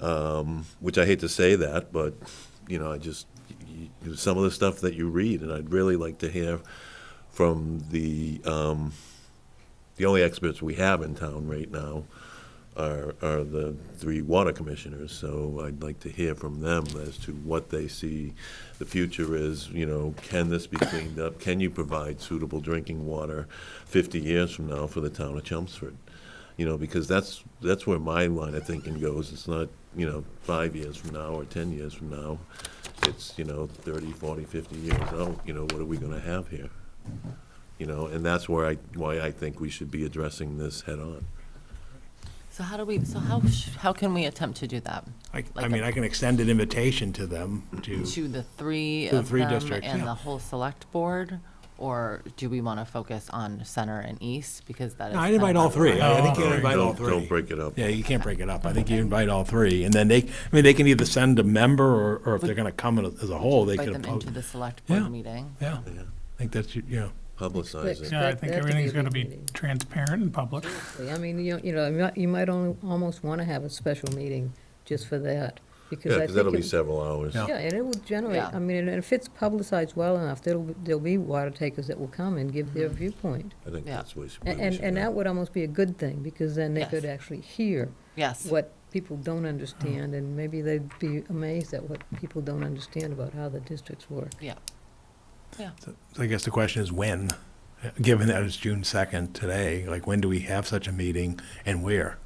um, which I hate to say that, but, you know, I just, y y some of the stuff that you read, and I'd really like to hear from the, um, the only experts we have in town right now are, are the three water commissioners, so I'd like to hear from them as to what they see the future is, you know, can this be cleaned up? Can you provide suitable drinking water 50 years from now for the town of Chelmsford? You know, because that's, that's where my line of thinking goes. It's not, you know, five years from now or 10 years from now. It's, you know, 30, 40, 50 years out, you know, what are we going to have here? You know, and that's where I, why I think we should be addressing this head-on. So how do we, so how, sh- how can we attempt to do that? I, I Like mean, a- I can extend an invitation to them to, To the three To the of three them districts, and yeah. the whole select board? Or do we want to focus on center and east because that is. No, I'd kind of invite all our three. I I think you All right, invite all Oh, don't- Don't 3 break it up. Yeah, you can't break it up. I think you invite all three. And then they, I mean, they can either send a member or, or if they're going to come in as a whole, they Invite could. them oppose- into the select Yeah. board meeting. Yeah, I Yeah, think that's, you know, Publicize it. Yeah, I That- think that could be everything's a going to big be meeting. transparent and public. I mean, you, you know, you might- you might only, almost want to have a special meeting just for that, because Yeah, I because think that'll be it- several hours. Yeah. Yeah, and it will generate, Yeah. I mean, and if it's publicized well enough, there'll, be- there'll be water takers that will come and give Mm-hmm. their viewpoint. I think Yeah. that's what we should. A- And, and that would almost be a good thing, because then they Yes. could actually hear Yes, what people don't understand, and maybe they'd be amazed at what people don't understand about how the districts work. yeah. so I guess the question is when, given that it's June 2nd today, like when do we have such a meeting and where?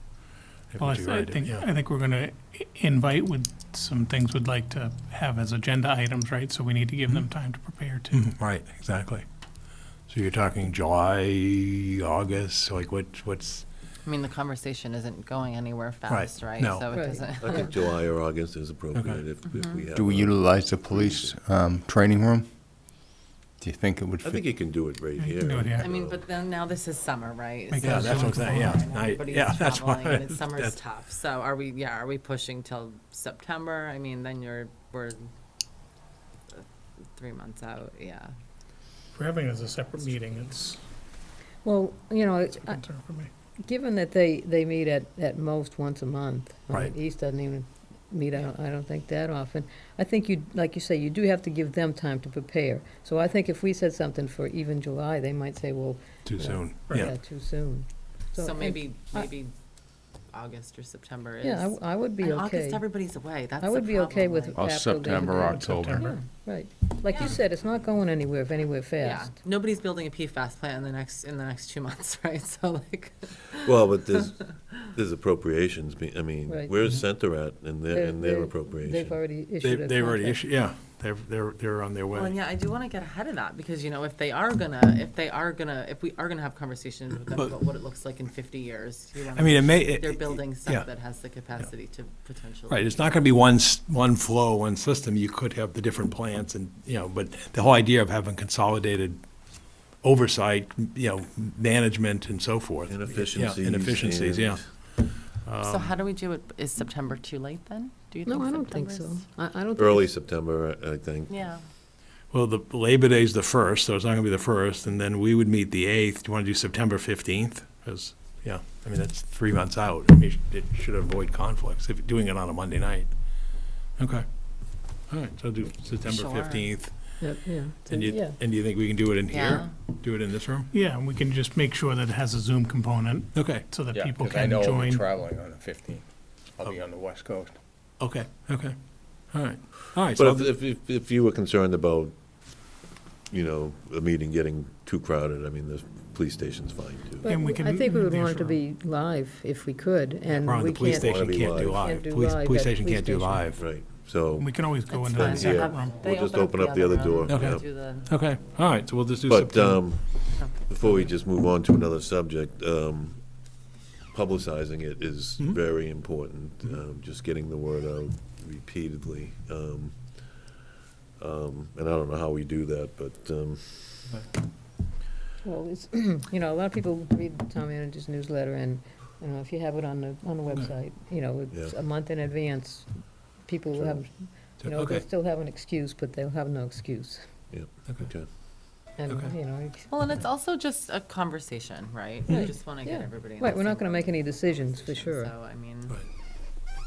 Well, I Would you th- I write it? think, Yeah. I think we're going to invite with some things we'd like to have as agenda items, right? So we need to give them Mm-hmm. time to prepare too. Mhm, Right, exactly. So you're talking July, August, like what, what's, I mean, the conversation isn't going anywhere fast, right? No. So it Right. doesn't, I think July or August is appropriate Okay. if, if we have. Do we a- utilize the police um, training room? Do you think it would I think fit? you can do it right Yeah, you here. can do it here. I mean, but then now this is summer, right? Like, So yeah, that's what I'm everyone's saying, yeah. online and I- everybody's yeah, that's why- traveling, and it's- Summer's that's- tough. So are we, yeah, are we pushing till September? I mean, then you're, we're uh, three months out, yeah. If we're having it as a separate meeting, it's Well, you know, a I- concern for me. Given that they, they meet at, at most once a month. I mean, Right. East doesn't even meet, I don't, I don't think that often. I think you, like you say, you do have to give them time to prepare. So I think if we said something for even July, they might say, well, too soon? yeah, too soon. So and- maybe, I- uh, maybe August or September is. Yeah, I w- I, would be And okay. August, everybody's away, that's I would the be okay problem, with like- Or April, September, Labor Day. October. Yeah, Right. Like you said, it's not going anywhere, if anywhere Yeah, fast. nobody's building a PFAS plant in the next, in the next two months, right? So like, Well, but there's, there's appropriations, be- I mean, Right. Mm-hmm. where's Center at in their, They're- in their they're- appropriation? They've already They, issued a they already contract. issued, yeah, they're, they're, they're on their Well, and way. yeah, I do want to get ahead of that because, you know, if they are gonna, if they are gonna, if we are gonna have conversations with them But- about what it looks like in fifty years, you I mean, know, it may. it- they're building yeah, stuff that has the capacity to potentially. Right, it's not gonna be one, s- one flow, one system, you could have the different plants and, you know, but the whole idea of having consolidated oversight, you know, management and so forth. yeah, Inefficiencies. Inefficiencies, yeah. Um, So how do we do it? Is September too late then? Do you think No, I don't think September so. is- I, I don't think. Early September, I I think. Yeah, Well, the Labor Day's the first, so it's not gonna be the first, and then we would meet the eighth. Do you wanna do September fifteenth? Because, yeah, I mean, that's three months out. I mean, it should avoid conflicts if you're doing it on a Monday night. Okay. All right, so do September Sure. fifteenth. Yeah, yeah. And Yeah. you, and do you think we can do it in Yeah. here? Do it in this room? Yeah, and we can just make sure that it has a Zoom component Okay, so that Yeah, people 'cause I can know I'll be join. Oh. traveling on the 15th. I'll be on the West Coast. okay, okay. All right, all right. so But I'll- if, if, if you were concerned about, you know, a meeting getting too crowded, I mean, the police station's fine too. But And we I can think we would be want it to sure. be live if we could, and Ron, we the police can't. station Wanna be can't live. do live. Can't do Police, live police at station police can't do station. live. Right, so, We can always go That's into the fine. Yeah. separate room. they we'll just open open up the other door. Okay. yeah. do the, Okay, all right, so we'll just do But, September. um, before we just move on to another subject, um, publicizing it is very important, um, just getting the word out repeatedly. Um, um, and I don't know how we do that, but, um, Well, it's, you know, a lot of people read the town manager's newsletter, and, you know, if you have it on the, on the website, you know, it's Yeah. a month in advance, people will have, you know, Okay. they'll still have an excuse, but they'll have no excuse. Okay. okay. And, Okay. you know, it's- well, and it's also just a conversation, right? We Right. just want to get Yeah. everybody. in the right, we're same not gonna make any decisions, for conversation, sure. So, I mean, Right.